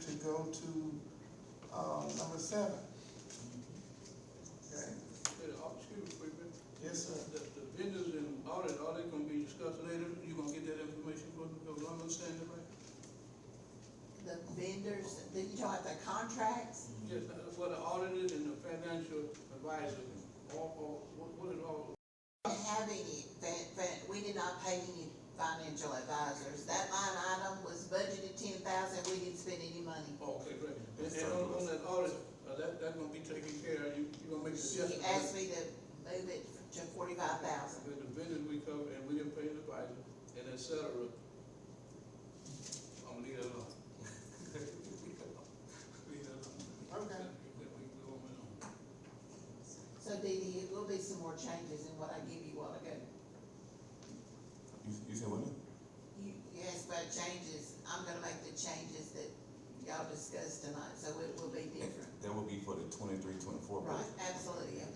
to go to, um, number seven. Okay, Yeah, the au- excuse me, quick minute. yes, sir. The, the vendors and audit, all that gonna be discussed later, you gonna get that information from, from what I'm understanding, right? The vendors, the, you talking about the contracts? Yes, that's what the audit is and the financial advisor, all, all, what, what is all, We didn't have any, fin- fin- we did not pay any financial advisors. That line item was budgeted ten thousand, we didn't spend any money. oh, okay, great. And, and on, on that audit, uh, that, that's gonna be taken care of, you, you gonna make the She adjustment. asked me to move it to forty-five thousand. With the vendors we cover and we didn't pay the advisor and et cetera. I'm gonna leave that alone. Leave that alone. Okay. We, we go on and on. So Dee Dee, it will be some more changes in what I give you while ago. You, you said what? You, you asked about changes, I'm gonna make the changes that y'all discussed tonight, so it will be different. That would be for the twenty-three, twenty-four Right, budget. absolutely, yeah.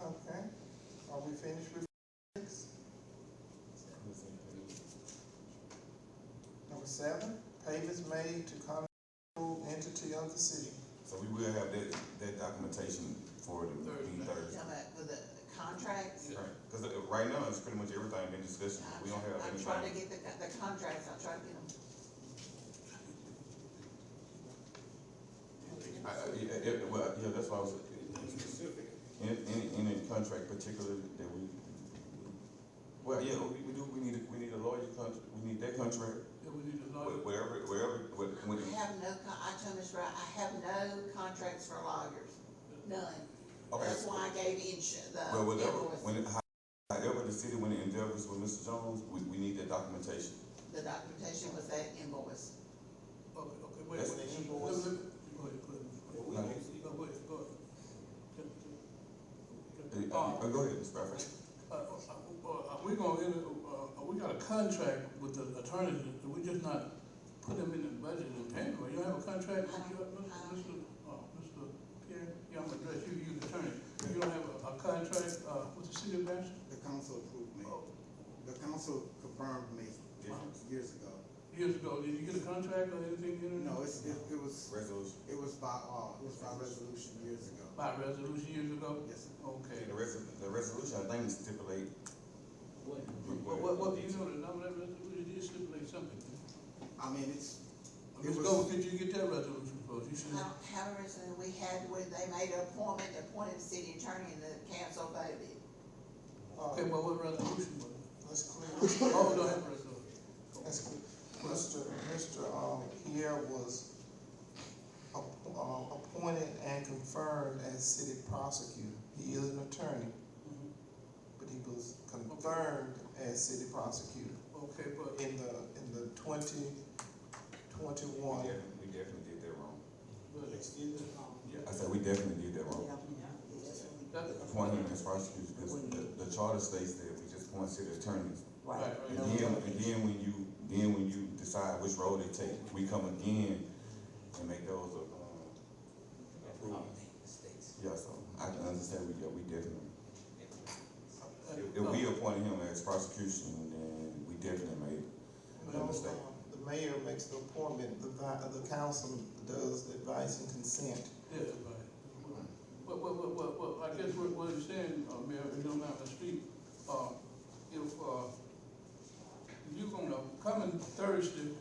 Okay, are we finished with six? Number seven, payments made to contractual entity of the city. So we will have that, that documentation for the meeting You Thursday. talking about for the contracts? Right, cause uh, right now, it's pretty much everything been discussed, we don't have I'm trying to anything. get the, the contracts, I'll try to get them. I, I, yeah, yeah, well, yeah, that's why I was, in, in, in a contract particular that we, well, yeah, we, we do, we need, a- we need a lawyer contract, we need that contract, Yeah, we need a lawyer. wh- wherever, wherever, wh- when, I have no, con- I told Ms. Wright, I have no contracts for lawyers, none. okay. That's why I gave insu, the Well, whatever, invoice, when, it- however, the city, when it endeavors with Mr. Jones, we, we need that documentation. the documentation was that invoice. Okay, okay, wait, That's wait. the invoice. Look, look, Go ahead, go Like, ahead. No, wait, uh, uh, go ahead. Uh, go ahead, Mr. Bradford. uh, uh, Are we gonna, enter- uh, uh, we got a contract with the attorney, that we just not put them in the budget and pay them, or you don't have a contract? with your- Mr., uh, Mr. Pierre, yeah, I'm gonna address you, you the attorney, you don't have a, a contract, uh, with the city of Bastrop? The council approved me. Oh, The council confirmed me years ago. Years ago, did you get a contract or anything in it? No, it's, it, it was, Resolution. it was by law, it was by resolution years ago. By resolution years ago? Yes, sir. Okay. The res, the resolution, I think stipulate. Well, what, what, you know, the number of resolution is stipulate something. I mean, it's, It Ms. was- Gold, could you get that resolution for us? You I Mm-hmm. should, don't have a reason, we had where they made an appointment, appointed the city attorney and the council voted. Uh, okay, well, what resolution was it? Let's clear. Oh, we don't have a resolution. That's good. Mr. Mr. Um, Pierre was app- uh, appointed and confirmed as city prosecutor. He is an attorney, Mhm. but he was confirmed as city prosecutor Okay, but, in the, in the twenty We twenty-one. definitely, we definitely did that wrong. but, I said, we definitely did that wrong. that, Appoint him as prosecutor, because the, the charter states that we just appoint city attorneys. right, And right. then, and then when you, then when you decide which road they take, we come again and make those, uh, approved. Yeah, so I can understand, we, yeah, we definitely. If if we appointed him as prosecution, then we definitely made, No, um, The mayor makes the appointment, the, vi- the council does the advice and consent. Yeah, right. But, but, but, but, but, I guess what, what I'm saying, uh, Mayor, if you don't mind, Mr. Street, uh, if, uh, you gonna, coming Thursday,